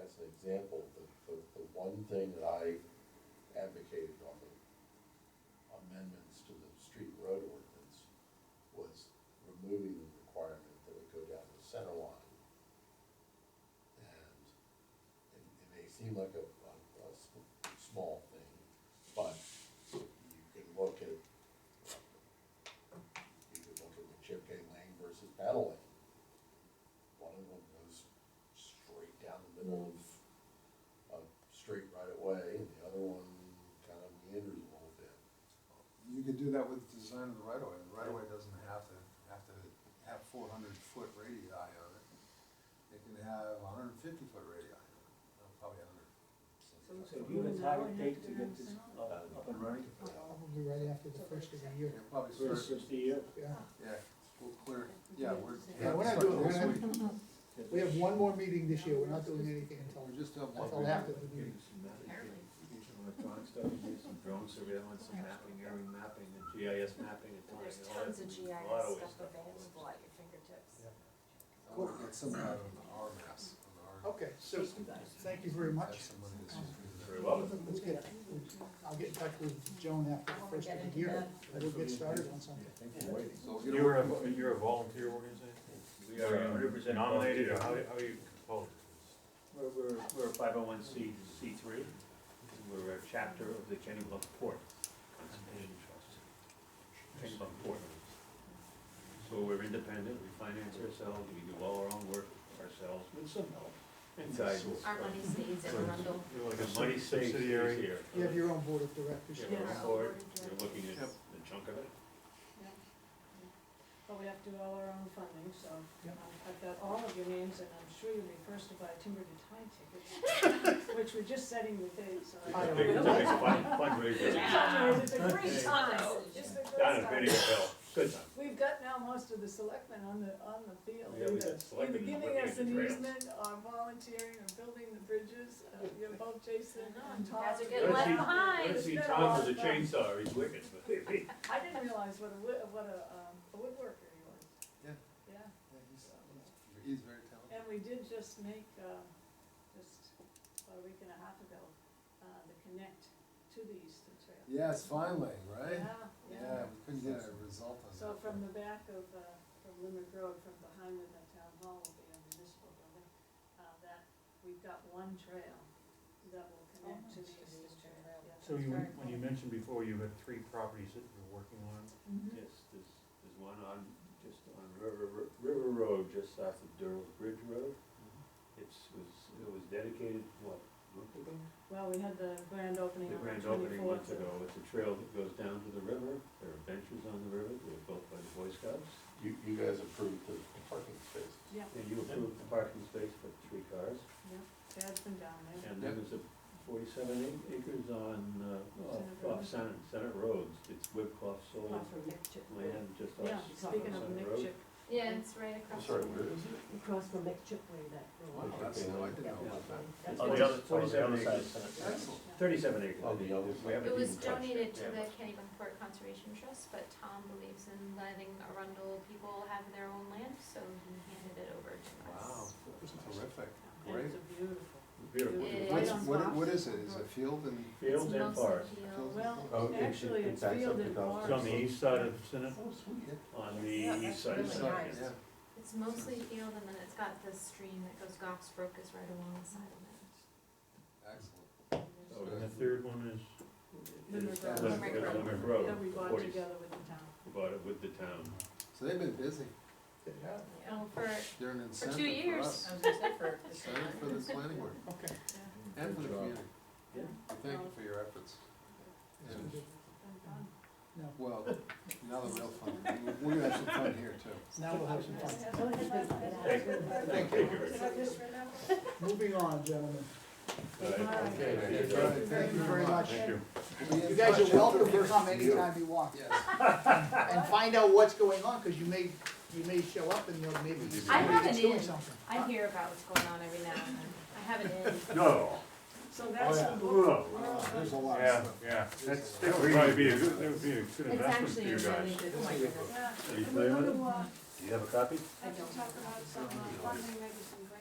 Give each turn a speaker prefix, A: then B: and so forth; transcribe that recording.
A: example, the, the, the one thing that I advocated on the amendments to the street and road ordinance was removing the requirement that it go down to the center line. And it, it may seem like a, a, a s- small thing, but you can look at, you can look at the chip K lane versus paddle lane. One of them goes straight down the middle of a street right away, and the other one kind of meanders a little bit.
B: You could do that with the design of the right of way, the right of way doesn't have to, have to have four hundred foot radii on it. It can have hundred and fifty foot radii, on it. Uh, probably hundred.
C: So do you have a target date to get this up, up and running?
D: Probably right after the first of the year,
B: It'll probably
C: First
B: start,
C: of the year?
D: yeah.
B: yeah, we'll clear, yeah, we're.
D: Yeah, we're not doing- we're not- We have one more meeting this year, we're not doing anything until,
B: We're just doing one.
D: until after the meeting.
E: Getting some mapping, getting some electronic stuff, and do some drone surveillance, some mapping, area mapping, and GIS mapping, and.
F: There's
E: all that-
F: tons of
E: a
F: GIS
E: lot of
F: stuff
E: ways
F: available at your fingertips.
B: We'll get some out of our maps, of our,
D: Okay, so, thank you very much.
B: that's somebody that's just.
E: Very well.
D: Let's get, I'll get in touch with Joan after the first of the year, and we'll get started on something.
B: So we'll get
E: You're
B: a-
E: a, you're a volunteer organization?
G: We are hundred percent
E: Nominated, or
G: volunteer.
E: how, how are you composed?
G: We're, we're, we're a five oh one C, C three, we're a chapter of the Kennybunk Port Conservation Trust. Kennybunk Port. So we're independent, we finance ourselves, we do all our own work ourselves with some help and guidance.
F: Our money stays in Arundel.
E: You're like a
G: The money
E: money
G: stays
E: subsidiary.
G: here.
D: You have your own board of directors.
G: Yeah,
F: Yeah.
G: we're on board, you're looking at
B: Yep.
G: the chunk of it.
H: But we have to do all our own funding, so
D: Yep.
H: um, I've got all of your names, and I'm sure you'll be first to buy timber to tie tickets, which we're just setting the date, so.
E: It's
D: I
E: a
D: don't
E: big- it's a
D: know.
E: big fund- fundraiser.
F: Yeah.
H: It's a great time, it's a great
E: Down at
H: time.
E: Benny Hill, good time.
H: We've got now most of the selectmen on the, on the field,
E: Yeah, we
H: either,
E: got
H: either
E: selectmen
H: giving
E: working
H: us
E: the
H: an
E: trails.
H: easement, or uh, volunteering, or building the bridges, uh, you know, both Jason and Tom.
F: Guys are
E: Let's
F: getting left
E: see-
F: behind.
E: Let's see
H: It's been a
E: Tom
H: lot
E: with a
H: of fun.
E: chainsaw, he's wicked.
H: I didn't realize what a, wood- what a, um, a woodworker he was.
B: Yeah.
H: Yeah.
B: Yeah, he's- He's very talented.
H: And we did just make, uh, just about a week and a half ago, uh, the connect to the Eastern Trail.
B: Yes, finally, right?
H: Yeah,
B: Yeah, we couldn't get a result on that.
H: So from the back of, uh, from Limerick Road, from behind when the town hall will be a municipal building, uh, that, we've got one trail that will connect to the Eastern Trail. Yeah,
C: So
H: that's
C: you,
H: very
C: when you
H: cool.
C: mentioned before, you had three properties that you're working on,
H: Mhm.
G: Yes, there's, there's one on, just on River, Ro- River Road, just south of Durrell Bridge Road. It's, was, it was dedicated, what, a month ago?
H: Well, we had the grand opening on
G: The
H: the
G: grand
H: twenty-fourth.
G: opening months ago, it's a trail that goes down to the river, there are benches on the river, they were built by the Boy Scouts.
A: You, you guys approved the parking spaces.
H: Yeah,
G: And you approved the parking space for three cars.
H: yeah, Dad's been down there.
G: And then there's a forty-seven ac- acres on, uh,
H: Senate
G: off- off
H: Road.
G: Senate, Senate Roads, it's Whipcliff sold
H: Off of Nick Chip.
G: land just off
H: Yeah,
G: off
H: speaking of
G: Senate
H: Nick
G: Road.
H: Chip,
F: Yeah, it's right
A: I'm
F: across.
A: sorry,
F: from-
A: where is it?
I: across from McChipway, that road.
A: Oh,
B: That's, I didn't know about that.
I: That's
G: On
I: where-
G: the other,
E: on the
G: forty-seven
E: other side of
G: acres.
B: Excellent.
G: Thirty-seven acres.
A: On the other
G: We
A: side.
G: haven't
F: It was
G: even touched
F: donated to
G: Yeah.
F: the Kennebunkport Conservation Trust, but Tom believes in letting Arundel people have their own land, so he handed it over to
B: Wow,
F: us.
B: terrific,
H: and
B: great.
H: it's a beautiful.
G: Beautiful.
F: Yeah.
B: What's,
H: Right on
B: what,
H: top.
B: what is it, is it field and,
F: It's
G: Fields and
F: mostly
G: forest
F: fields.
A: Oh,
H: Well,
A: it-
H: actually,
A: it
H: it's
A: backs up
H: field
A: to
H: and
A: Gulf.
H: farm.
C: it's on the east side of Senate,
B: oh, sweet.
G: on
H: Yeah,
G: the
H: that's
G: east side.
H: really
G: Senate.
H: nice.
B: Yeah,
F: It's mostly field and then it's got the stream that goes, Goff's Brook is right alongside of
B: excellent.
G: So
C: and the third one is,
H: Limerick
G: it's-
H: Road.
G: Lim-
F: Limerick
G: it's
F: Road.
G: Limerick Road,
H: That we
G: the
H: bought
G: 40s.
H: together with the town.
G: We bought it with the town.
B: So they've been busy,
A: Yeah.
F: it. Oh, for,
B: they're an incentive for
F: years.
B: us,
I: I was gonna say for the
B: incentive for the planning board,
D: Okay.
B: and for the
G: Good job.
B: community.
G: Yeah.
B: We Thank you for your efforts.
D: It's
B: And,
D: gonna be-
B: Well, now the real fun, We- we're gonna have some fun here too.
D: Now we'll have some fun.
G: Thank you. Thank you.
H: Did I just remember?
D: Moving on, gentlemen.
G: Right.
H: Okay,
G: Okay,
B: All
G: so-
B: right, thank you very much.
E: thank you.
B: We'll be in
D: You guys
B: touch.
D: are welcome to come anytime you want,
B: Yes,
D: and find out what's going on, because you may, you may show up and you'll maybe.
F: I have
D: somebody's
F: an
D: doing
F: in.
D: something.
F: I hear about what's going on every now and then. I have it in.
E: No,
H: So that's
B: yeah.
H: the book.
E: no,
B: Wow, there's a lot of
E: yeah,
B: stuff.
E: yeah, that's,
B: There's
E: that
B: a
E: would
B: lot.
E: probably be a good, that would be a good
I: It's
E: investment for
I: actually
E: you
I: a
E: guys.
I: really good point.
H: Yeah,
E: you
H: and we're
E: playing with
H: gonna, uh,
E: Do you have a copy?
H: I can talk about some uh, funding, maybe some